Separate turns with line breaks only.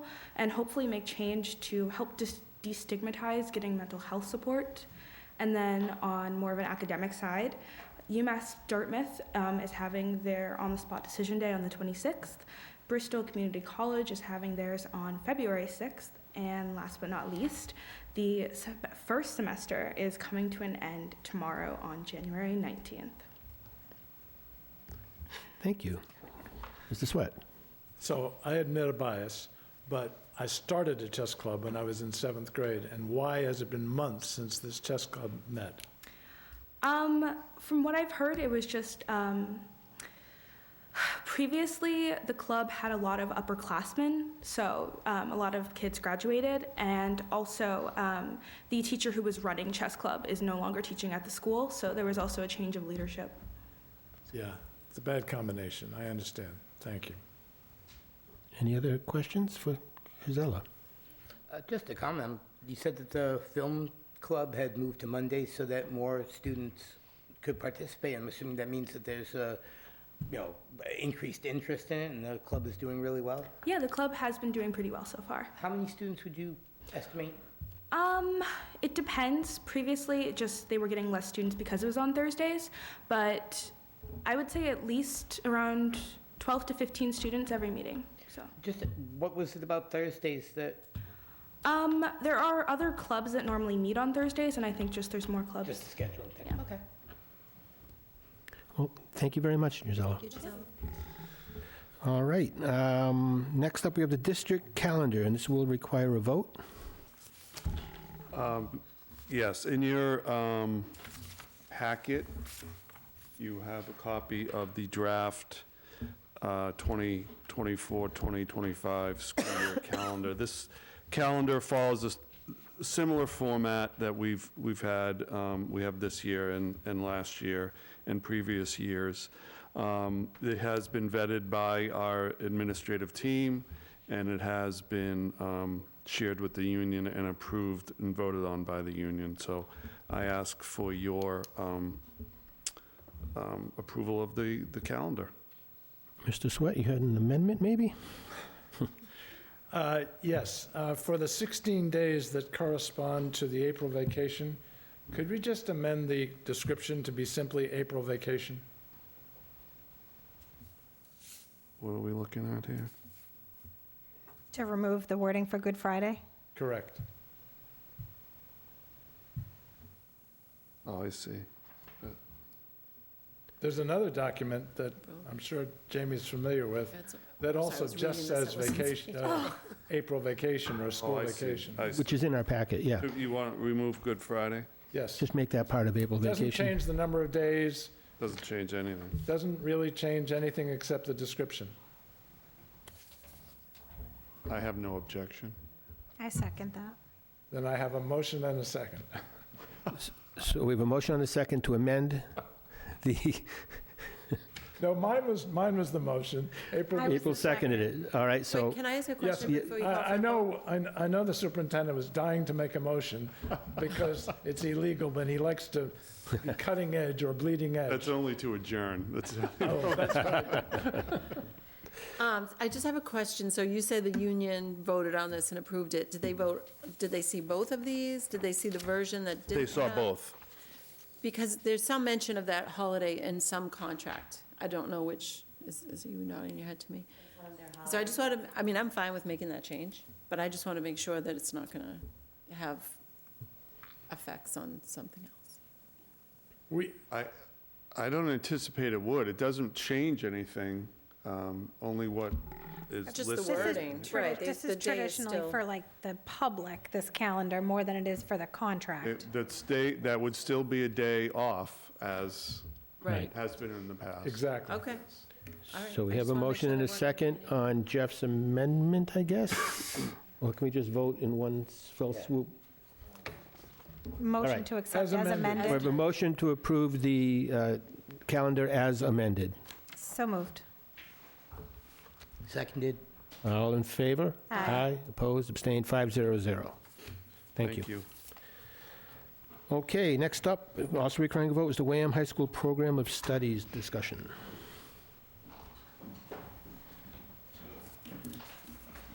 and hopefully make change to help dis- destigmatize getting mental health support. And then on more of an academic side, UMass Dartmouth um, is having their on the spot decision day on the 26th. Bristol Community College is having theirs on February 6th. And last but not least, the se- first semester is coming to an end tomorrow on January 19th.
Thank you. Mr. Sweat?
So I admit a bias, but I started a chess club when I was in seventh grade, and why has it been months since this chess club met?
Um, from what I've heard, it was just um, previously the club had a lot of upperclassmen, so um, a lot of kids graduated, and also um, the teacher who was running chess club is no longer teaching at the school, so there was also a change of leadership.
Yeah, it's a bad combination, I understand, thank you.
Any other questions for Gisella?
Uh, Just a comment, you said that the film club had moved to Monday so that more students could participate. I'm assuming that means that there's a, you know, increased interest in it and the club is doing really well.
Yeah, the club has been doing pretty well so far.
How many students would you estimate?
Um, it depends. Previously, it just they were getting less students because it was on Thursdays, but I would say at least around 12 to 15 students every meeting. So,
Just, what was it about Thursdays that,
um, there are other clubs that normally meet on Thursdays, and I think just there's more clubs.
just the scheduling thing?
Yeah.
Okay.
Well, thank you very much, Gisella. All right, um, next up, we have the district calendar, and this will require a vote.
Yes, in your um, packet, you have a copy of the draft uh, 2024, 2025 school year calendar. This calendar follows a s- similar format that we've, we've had, um, we have this year and, and last year and previous years. Um, It has been vetted by our administrative team, and it has been um, shared with the union and approved and voted on by the union. So I ask for your um, um, approval of the, the calendar.
Mr. Sweat, you had an amendment, maybe?
Uh, Yes, uh, for the 16 days that correspond to the April vacation, could we just amend the description to be simply April vacation?
What are we looking at here?
To remove the wording for Good Friday?
Correct.
Oh, I see.
There's another document that I'm sure Jamie's familiar with, that also
was reading
just
this, I
says
wasn't
vacation, uh, April vacation or
Oh,
school
I see.
vacation.
I see.
Which is in our packet, yeah.
You want to remove Good Friday?
Yes.
Just make that part of April
Doesn't
vacation.
change the number of days,
Doesn't change anything.
doesn't really change anything except the description.
I have no objection.
I second that.
Then I have a motion and a second.
So we have a motion on a second to amend the,
No, mine was, mine was the motion. April,
I was
April
the second.
seconded it, all right, so.
Wait, can I ask a
Yes,
question
yeah,
before you call?
I, I know, I I know the superintendent was dying to make a motion because it's illegal, but he likes to be cutting edge or bleeding edge.
That's only to adjourn. That's,
Oh, that's right.
Um, I just have a question. So you said the union voted on this and approved it. Did they vote, did they see both of these? Did they see the version that didn't
they saw
have-
both.
Because there's some mention of that holiday in some contract. I don't know which, is, is you nodding your head to me? So I just want to, I mean, I'm fine with making that change, but I just want to make sure that it's not going to have effects on something else.
We,
I, I don't anticipate it would. It doesn't change anything, um, only what is
Just the
listed.
This is
Wording,
tradi-
right, they-
This
the
is
day is
traditionally
still-
for like the public, this calendar, more than it is for the contract.
It- That's day, that would still be a day off as
Right.
has been in the past.
exactly.
Okay. All right.
So we
I
have
just
a
wanna make
motion
sure
and
I
a
wasn't-
second on Jeff's amendment, I guess? Or can we just vote in one s- fell swoop?
Motion
right.
to accept
As
as
amended.
We have
amended.
a motion to approve the uh, calendar as amended.
So moved.
Seconded.
All in favor?
Aye.
opposed, abstained, 500. Thank you. Okay, next up, also requiring a vote, is the Wareham High School Program of Studies discussion.